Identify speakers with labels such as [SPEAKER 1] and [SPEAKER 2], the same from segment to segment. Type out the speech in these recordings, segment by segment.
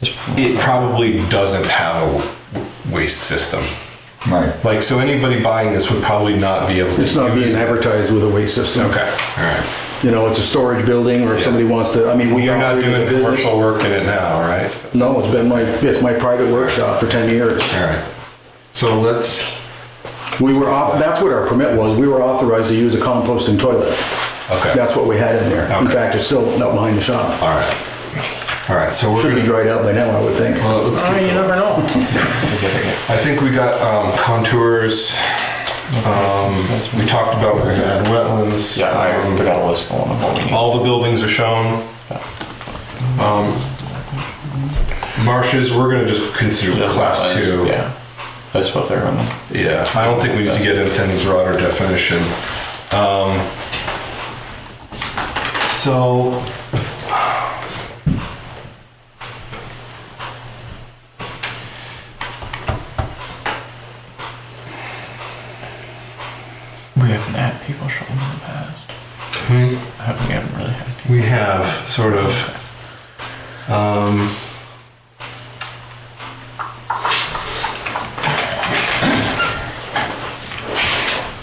[SPEAKER 1] it probably doesn't have a w- waste system.
[SPEAKER 2] Right.
[SPEAKER 1] Like, so anybody buying this would probably not be able to.
[SPEAKER 3] It's not
[SPEAKER 1] use
[SPEAKER 3] being
[SPEAKER 1] it.
[SPEAKER 3] advertised with a waste system.
[SPEAKER 1] Okay, all right.
[SPEAKER 3] You know, it's a storage building, or if somebody wants to, I mean, we
[SPEAKER 1] You're
[SPEAKER 3] are
[SPEAKER 1] not doing
[SPEAKER 3] a business.
[SPEAKER 1] commercial work in it now, right?
[SPEAKER 3] No, it's been my, it's my private workshop for 10 years.
[SPEAKER 1] All right. So let's,
[SPEAKER 3] We were, au- that's what our permit was, we were authorized to use a composting toilet.
[SPEAKER 1] Okay.
[SPEAKER 3] That's what we had in there. In
[SPEAKER 1] Okay.
[SPEAKER 3] fact, it's still out behind the shop.
[SPEAKER 1] all right. All right, so we're
[SPEAKER 3] Should be
[SPEAKER 1] gonna.
[SPEAKER 3] dried out by now, I would think.
[SPEAKER 1] Well, let's keep
[SPEAKER 4] you never know.
[SPEAKER 1] I think we got um, contours. Um, we talked about we're gonna add wetlands.
[SPEAKER 5] Yeah, I put
[SPEAKER 1] Um,
[SPEAKER 5] out a list on what we need.
[SPEAKER 1] all the buildings are shown. Um, marshes, we're gonna just consider class two.
[SPEAKER 5] Yeah, that's what they're on.
[SPEAKER 1] Yeah, I don't think we need to get into any broader definition. Um, so.
[SPEAKER 5] We haven't had people show them in the past.
[SPEAKER 1] hmm.
[SPEAKER 5] I hope we haven't really had. people.
[SPEAKER 1] we have sort of um,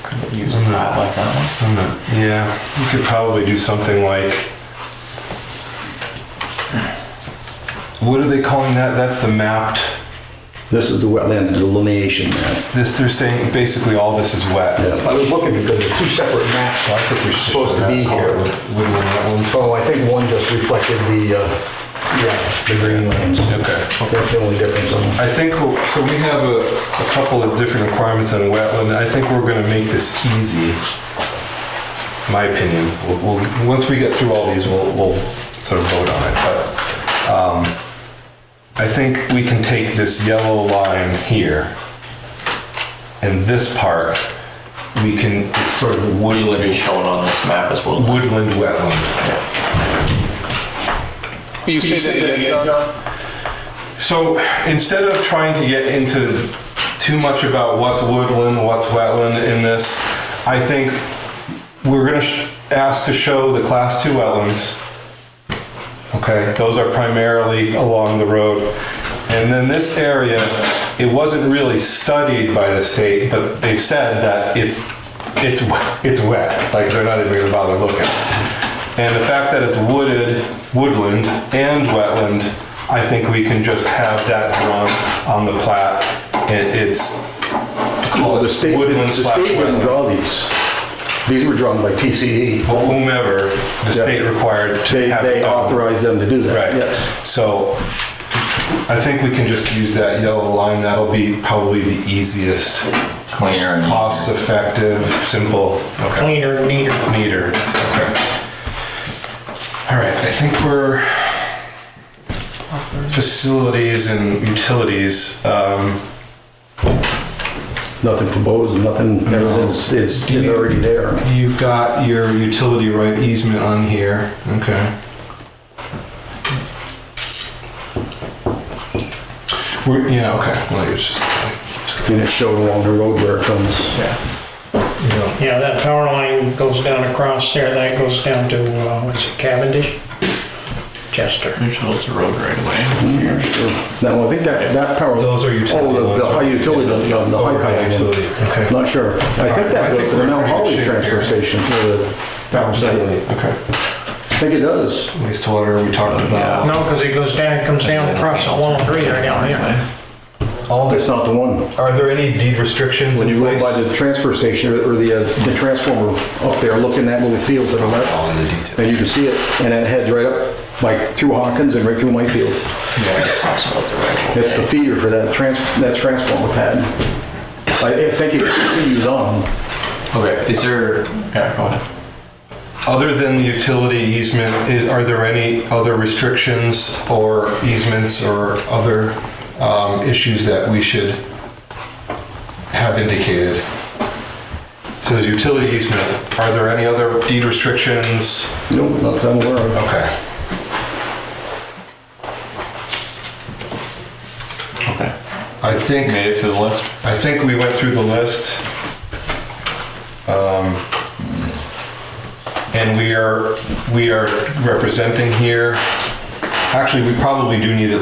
[SPEAKER 5] Could we use a lot like that one?
[SPEAKER 1] I'm not, yeah, we could probably do something like what are they calling that? That's the mapped.
[SPEAKER 3] This is the wetland delineation map.
[SPEAKER 1] This they're saying basically all this is wet.
[SPEAKER 6] I was looking because there's two separate maps, so I think we're supposed to be
[SPEAKER 1] Woodland,
[SPEAKER 6] here.
[SPEAKER 1] wetland.
[SPEAKER 6] So I think one just reflected the, uh, yeah, the greenlands.
[SPEAKER 1] Okay.
[SPEAKER 6] That's the only difference on
[SPEAKER 1] I think we'll- so. We have a, a couple of different requirements on wetland. I think we're going to make this easy. My opinion. We'll, we'll once we get through all these, we'll, we'll sort of vote on it. But um, I think we can take this yellow line here, and this part we can. It's sort of
[SPEAKER 5] Woodland is
[SPEAKER 1] woodland,
[SPEAKER 5] shown on this map as well.
[SPEAKER 1] woodland wetland.
[SPEAKER 7] Will you say that again, John?
[SPEAKER 1] So instead of trying to get into too much about what's woodland, what's wetland in this, I think we're going to ask to show the class two wetlands. Okay, those are primarily along the road. And then this area, it wasn't really studied by the state, but they've said that it's, it's, wet- it's wet, like they're not even gonna bother looking. And the fact that it's wooded, woodland and wetland, I think we can just have that drawn on the plat. And it's,
[SPEAKER 3] Well, the state,
[SPEAKER 1] Woodland
[SPEAKER 3] the
[SPEAKER 1] slash wetland.
[SPEAKER 3] state wouldn't draw these. These were drawn by TCE.
[SPEAKER 1] whomever the
[SPEAKER 3] Yeah.
[SPEAKER 1] state required
[SPEAKER 3] They,
[SPEAKER 1] to have. it
[SPEAKER 3] they
[SPEAKER 1] done.
[SPEAKER 3] authorized them to do that,
[SPEAKER 1] Right.
[SPEAKER 3] yes.
[SPEAKER 1] So I think we can just use that yellow line. That'll be probably the easiest.
[SPEAKER 2] Cleaner and
[SPEAKER 1] Cost effective, simple. Okay.
[SPEAKER 4] Cleaner, neater.
[SPEAKER 1] Meter. Okay. All right, I think we're facilities and utilities. Um,
[SPEAKER 3] Nothing proposed, nothing, everything is, is already there.
[SPEAKER 1] You've got your utility right easement on here, okay. We're, yeah, okay, well, it's just,
[SPEAKER 3] And it showed along the road where it comes.
[SPEAKER 1] you know,
[SPEAKER 4] Yeah, that power line goes down across there, that goes down to, uh, what's it, Cavendish? Chester.
[SPEAKER 5] There's those road right away.
[SPEAKER 3] No, I think that, that power.
[SPEAKER 1] Those are utility
[SPEAKER 3] Oh, the- the
[SPEAKER 1] lines.
[SPEAKER 3] high utility, no, the high
[SPEAKER 1] Overhead
[SPEAKER 3] power.
[SPEAKER 1] utility, okay.
[SPEAKER 3] Not sure. I think
[SPEAKER 1] I
[SPEAKER 3] that
[SPEAKER 1] think
[SPEAKER 3] goes to
[SPEAKER 1] we're in
[SPEAKER 3] the Mount
[SPEAKER 1] pretty good
[SPEAKER 3] Holly
[SPEAKER 1] shape
[SPEAKER 3] transfer
[SPEAKER 1] here.
[SPEAKER 3] station. or the-
[SPEAKER 1] okay.
[SPEAKER 3] I think it does.
[SPEAKER 1] Wastewater, we talked about.
[SPEAKER 4] No, because it goes down, comes down across the long tree right down here.
[SPEAKER 1] All
[SPEAKER 3] It's
[SPEAKER 1] this,
[SPEAKER 3] not the one.
[SPEAKER 1] are there any deed restrictions
[SPEAKER 3] When
[SPEAKER 1] in
[SPEAKER 3] you go
[SPEAKER 1] place?
[SPEAKER 3] by the transfer station or or the, uh, the transformer up there, looking at little fields that are
[SPEAKER 1] All in the
[SPEAKER 3] left,
[SPEAKER 1] details.
[SPEAKER 3] and you can see it, and it heads right up, like through Hawkins and right through my field. It's the feeder for that trans, that transformer pad. I I think it continues on.
[SPEAKER 5] Okay, is there, yeah, go ahead.
[SPEAKER 1] Other than the utility easement, is, are there any other restrictions or easements or other um, issues that we should have indicated? So there's utility easement, are there any other deed restrictions?
[SPEAKER 3] No, not that I'm aware of.
[SPEAKER 1] Okay.
[SPEAKER 5] Okay.
[SPEAKER 1] I think.
[SPEAKER 5] Made it through the list?
[SPEAKER 1] I think we went through the list. Um, And we are, we are representing here. Actually, we probably do need at